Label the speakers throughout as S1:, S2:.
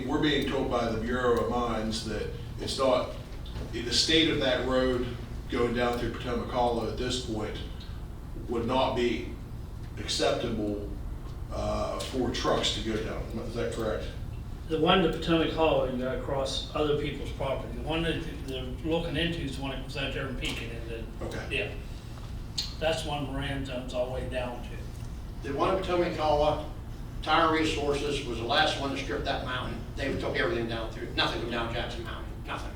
S1: we're being told by the Bureau of Mines that it's not, the state of that road going down through Potomac Hollow at this point would not be acceptable uh, for trucks to go down. Is that correct?
S2: The one to Potomac Hollow, you got across other people's property. The one that they're looking into is the one that was out there in Pekin and then,
S1: Okay.
S2: yeah. That's one Moran owns all the way down to.
S3: The one in Potomac, Iowa, Tire Resources was the last one to strip that mountain. They took everything down through, nothing go down Jackson Mountain, nothing.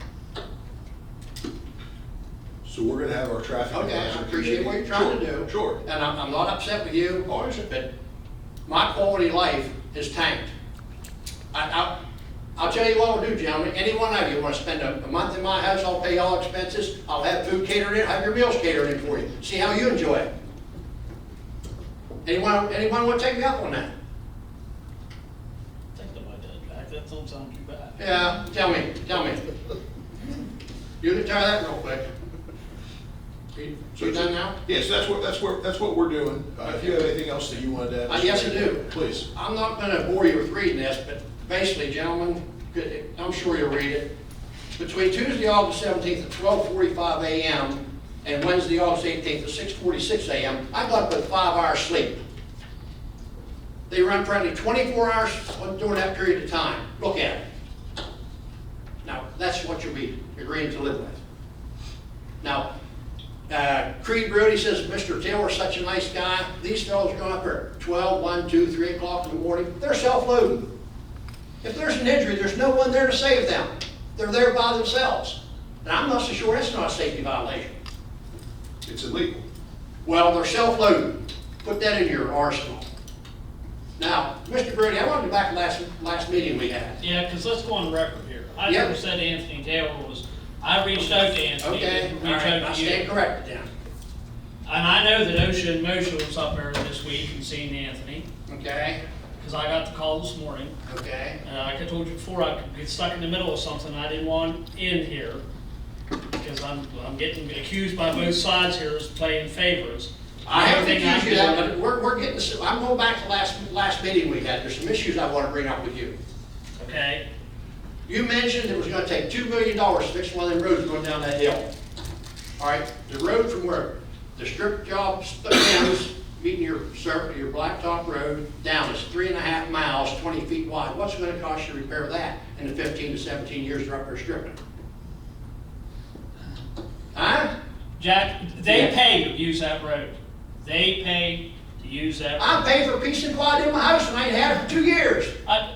S1: So we're gonna have our traffic.
S3: Okay, I
S1: advisory
S3: appreciate what you're
S1: committee.
S3: trying to do.
S1: Sure,
S3: And I'm, I'm not upset with you.
S1: Oh, I understand.
S3: But my quality of life is tanked. I, I, I'll tell you what I'll do, gentlemen, any one of you wanna spend a, a month in my house, I'll pay all expenses, I'll have food catered in, have your meals catered in for you, see how you enjoy it. Anyone, anyone wanna take me up on that?
S2: Think about that, Jack. That don't sound too bad.
S3: Yeah, tell me, tell me. You can try that real quick. You- You done now?
S1: Yes, that's what, that's what, that's what we're doing. Uh, If you have anything else that you wanted to add.
S3: Uh, yes, I do.
S1: Please.
S3: I'm not gonna bore you with reading this, but basically, gentlemen, good- I'm sure you'll read it. Between Tuesday, August seventeenth at twelve forty-five AM and Wednesday, August eighteenth at six forty-six AM, I got up with five hours sleep. They run probably twenty-four hours during that period of time. Look at it. Now, that's what you'll be agreeing to live with. Now, uh, Creed Brody says, Mr. Taylor's such a nice guy. These fellows go up at 12, 1, 2, 3 o'clock in the morning. They're self-loading. If there's an injury, there's no one there to save them. They're there by themselves. And I'm not so sure that's not a safety violation.
S1: It's illegal.
S3: Well, they're self-loading. Put that in your arsenal. Now, Mr. Brody, I wanted to go back to last, last meeting we had.
S2: Yeah, because let's go on record here. I
S3: Yeah.
S2: never said Anthony Taylor was, I reached out to Anthony,
S3: Okay,
S2: didn't
S3: all
S2: reach
S3: right, I
S2: out to you.
S3: stand corrected then.
S2: And I know that OSHA and MOSHA was up there this week and seen Anthony,
S3: Okay,
S2: because I got the call this morning.
S3: okay.
S2: Uh, like I told you before, I could get stuck in the middle of something I didn't want in here, because I'm, I'm getting accused by both sides here as playing favors.
S3: I haven't
S2: Everything I
S3: accused you of that,
S2: do-
S3: but we're, we're getting, s- I'm going back to last, last meeting we had, there's some issues I wanna bring up with you.
S2: Okay,
S3: You mentioned it was gonna take two million dollars to fix one of them roads going down that hill. All right, the road from where, the strip job ends, meeting your surf, your blacktop road down is three and a half miles, twenty feet wide. What's it gonna cost you to repair that in the fifteen to seventeen years they're up there stripping? Huh?
S2: Jack, they
S3: Yeah.
S2: pay to use that road. They pay to use that.
S3: I paid for a piece of quad in my house and I ain't had it for two years.
S2: I,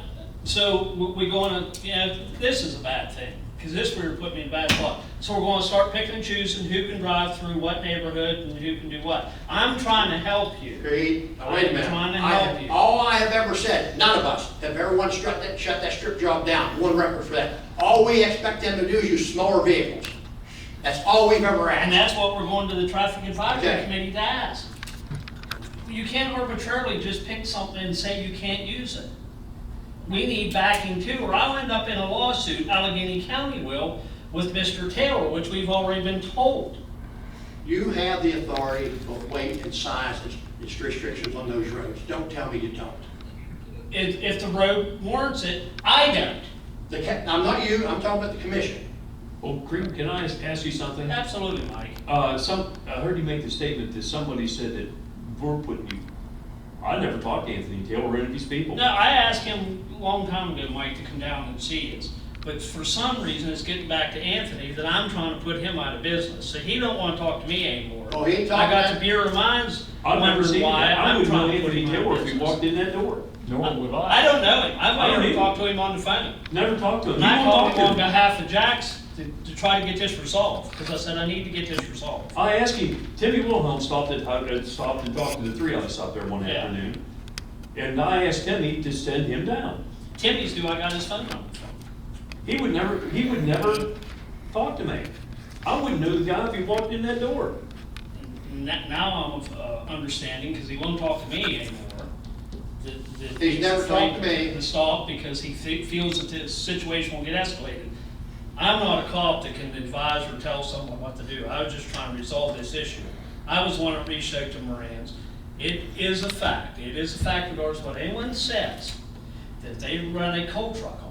S2: so we- we going to, you know, this is a bad thing, because this would put me in a bad spot. So we're going to start picking and choosing who can drive through what neighborhood and who can do what. I'm trying to help you.
S3: Creed, now wait a minute.
S2: I'm trying to
S3: I-
S2: help you.
S3: All I have ever said, none of us have ever once shut that, shut that strip job down, one record for that. All we expect them to do is use smaller vehicles. That's all we've ever
S2: And
S3: asked.
S2: that's what we're going to the traffic advisory
S3: Okay.
S2: committee to ask. You can't arbitrarily just pick something and say you can't use it. We need backing too, or I'll end up in a lawsuit, Allegheny County will, with Mr. Taylor, which we've already been told.
S3: You have the authority of weight and size and its restrictions on those roads. Don't tell me you don't.
S2: If, if the road warrants it, I don't.
S3: The, ca- I'm not you, I'm talking about the commission.
S4: Well, Oh, Creed, can I ask- ask you something?
S2: Absolutely, Mike.
S4: Uh, some, I heard you make the statement that somebody said that we're putting you, I never talked to Anthony Taylor or any of these people.
S2: No, I asked him a long time ago, Mike, to come down and see us, but for some reason, it's getting back to Anthony that I'm trying to put him out of business, so he don't wanna talk to me anymore.
S3: Oh, he ain't
S2: I got
S3: talking-
S2: the Bureau of Mines,
S4: I've never
S2: wondering
S4: seen him.
S2: why
S4: I
S2: I'm
S4: would know
S2: trying to put
S4: Anthony
S2: him out of
S4: Taylor if he
S2: business.
S4: walked in that door.
S5: Nor would
S2: I
S5: I.
S2: don't know him,
S4: I
S2: I've
S4: don't
S2: only
S4: either.
S2: talked to him on the phone.
S4: Never talked to him.
S2: And
S4: You
S2: I
S4: won't
S2: called
S4: talk
S2: him
S4: to
S2: on
S4: him.
S2: behalf of Jack's to, to try to get this resolved, cause I said, I need to get this resolved.
S4: I asked him, Timmy Wilhelm stopped at, uh, stopped and talked to the three of us up there one
S2: Yeah.
S4: afternoon. And I asked Timmy to send him down.
S2: Timmy's do, I got his phone number.
S4: He would never, he would never talk to me. I wouldn't know the guy if he walked in that door.
S2: N- Now I'm of uh, understanding, because he won't talk to me anymore. that- that
S3: He's never
S2: afraid
S3: talked to me.
S2: To stop because he fe- feels that the situation will get escalated. I'm not a cop that can advise or tell someone what to do. I was just trying to resolve this issue. I was the one that reached out to Moran's. It is a fact, it is a fact of ours, what anyone says, that they run a coal truck on